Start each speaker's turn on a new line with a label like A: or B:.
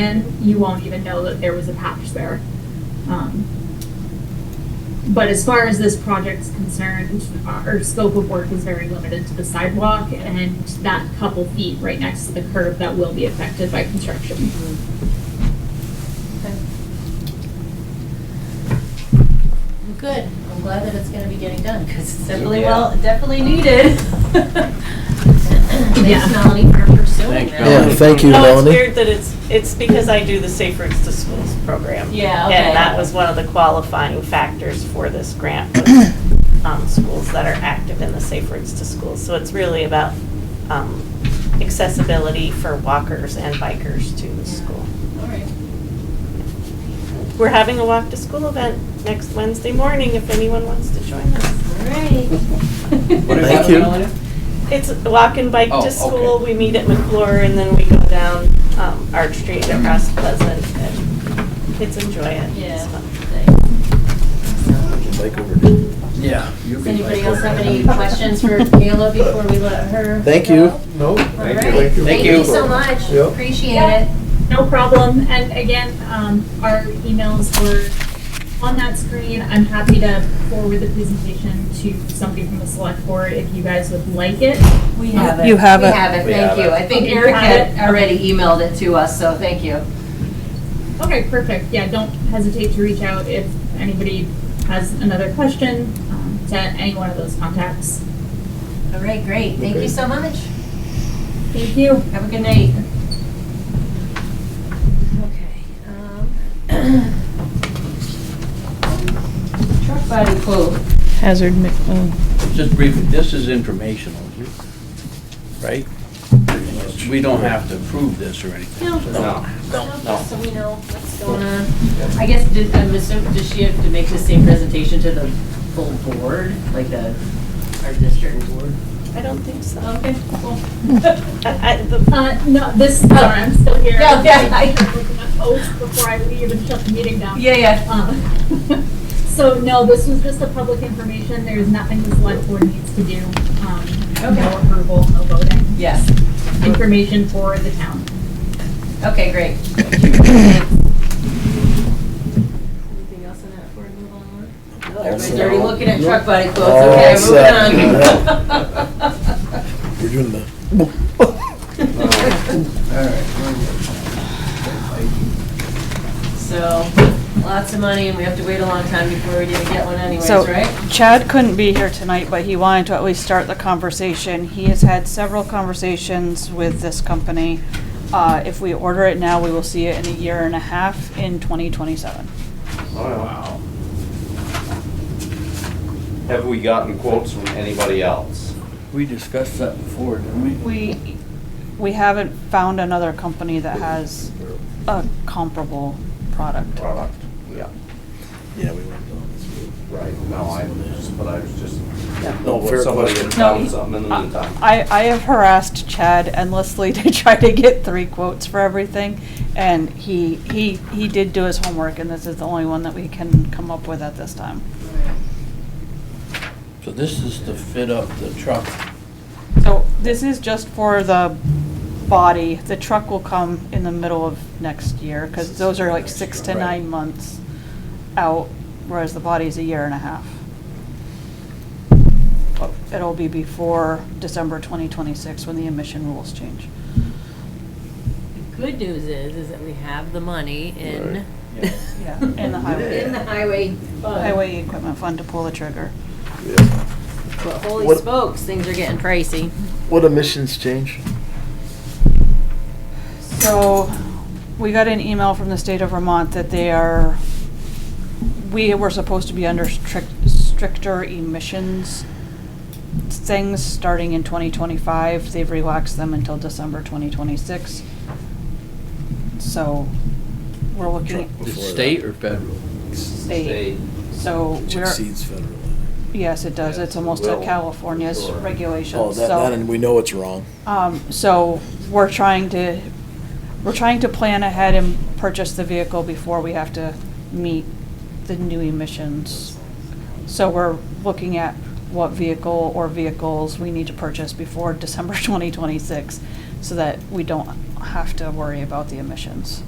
A: in, you won't even know that there was a patch there. Um, But as far as this project's concerned, our scope of work is very limited to the sidewalk and that couple feet right next to the curb that will be affected by construction.
B: Good, I'm glad that it's gonna be getting done, because it's definitely
C: Yeah.
B: well, definitely needed.
A: Yeah.
B: Thanks Melanie for pursuing
C: Thanks,
B: that.
D: Yeah, thank you,
E: Oh, it's
D: Melanie.
E: weird that it's, it's because I do the Safe Routes to Schools program.
B: Yeah, okay.
E: And that was one of the qualifying factors for this grant, was, um, schools that are active in the Safe Routes to Schools. So it's really about um, accessibility for walkers and bikers to the school.
B: All right.
E: We're having a walk to school event next Wednesday morning if anyone wants to join us.
B: All right.
C: What is
D: Thank
C: that,
D: you.
C: Melanie?
E: It's a walk and bike
C: Oh,
E: to
C: okay.
E: school. We meet at McClure and then we go down um, Arch Street across Pleasant and kids enjoy it. It's
B: Yeah.
E: fun.
B: thanks.
D: Bike over to-
C: Yeah. you
B: Does
C: can-
B: anybody else have any questions for Kayla before we let her?
D: Thank
B: go?
D: you.
B: All
F: No.
B: right.
F: Thank you.
B: Thank you so much,
F: Yep.
B: appreciate
A: Yeah.
B: it.
A: No problem. And again, um, our emails were on that screen. I'm happy to forward the presentation to somebody from the select board if you guys would like it.
B: We
A: have
G: it. You have it.
B: We have it,
C: We
B: thank
C: have
B: you.
C: it.
B: I think
A: Okay,
B: Eric
A: got
B: had
A: it.
B: already emailed it to us, so thank you.
A: Okay, perfect. Yeah, don't hesitate to reach out if anybody has another question um, to any one of those contacts.
B: All right, great, thank you so much.
A: Thank you.
B: Have a good night. Okay. um, Truck body quote.
G: Hazard, mi- oh,
C: Just briefly, this is informational, you- right? We don't have to approve this or anything.
B: No.
C: No.
B: No, So we know what's going on. I guess, did, I'm assuming, does she have to make the same presentation to the full board, like the, our district board?
E: I don't think so.
B: Okay, cool.
E: I- I- the-
A: Uh, no, this, sorry, I'm still here.
B: Yeah, yeah, I-
A: I'm looking at notes before I leave and shut the meeting down.
B: Yeah, yeah.
A: Um, So, no, this was just a public information, there is nothing the select board needs to do. um, No
B: Okay.
A: approval, no voting,
B: Yes.
A: information for the town.
B: Okay, great. Anything else on that before we move on? Everybody's already looking at truck body quotes,
D: All
B: okay,
D: set.
B: moving on.
D: We're doing the.
B: So, lots of money and we have to wait a long time before we even get one anyways,
G: So-
B: right?
G: Chad couldn't be here tonight, but he wanted to at least start the conversation. He has had several conversations with this company. Uh, If we order it now, we will see it in a year and a half in 2027.
H: Wow. Have we gotten quotes from anybody else?
C: We discussed that before, didn't we?
G: We, we haven't found another company that has a comparable product.
H: Product.
C: Yeah.
D: Yeah, we went down this road.
H: Right, no, I, but I was just,
D: No,
H: what,
D: fair
H: somebody
D: question.
H: had found
G: No,
H: something in the meantime.
G: I, I have harassed Chad endlessly to try to get three quotes for everything, and he, he, he did do his homework, and this is the only one that we can come up with at this time.
C: So this is to fit up the truck.
G: So this is just for the body. The truck will come in the middle of next year, because those are like six to
C: Right.
G: nine months out, whereas the body is a year and a half. But It'll be before December 2026, when the emission rules change.
B: The good news is, is that we have the money in.
G: Yeah, in the highway.
B: In the highway fund.
G: Highway Equipment Fund to pull the trigger.
B: But holy
D: What-
B: smokes, things are getting pricey.
D: What emissions change?
G: So, we got an email from the state of Vermont that they are, we were supposed to be under strict, stricter emissions things starting in 2025. They've relaxed them until December 2026. So, we're looking
D: Truck.
G: at
D: Before that.
C: State or federal?
G: state. So,
D: Which
G: we're,
D: Exceeds federal.
G: yes, it does. It's almost
H: Yes, it
G: a
H: will, for
G: California's
H: sure.
D: Oh,
G: regulations, so.
D: that, that, and we know it's wrong.
B: Uh,
G: Um, so we're trying to, we're trying to plan ahead and purchase the vehicle before we have to meet the new emissions. So we're looking at what vehicle or vehicles we need to purchase before December 2026 so that we don't have to worry about the emissions.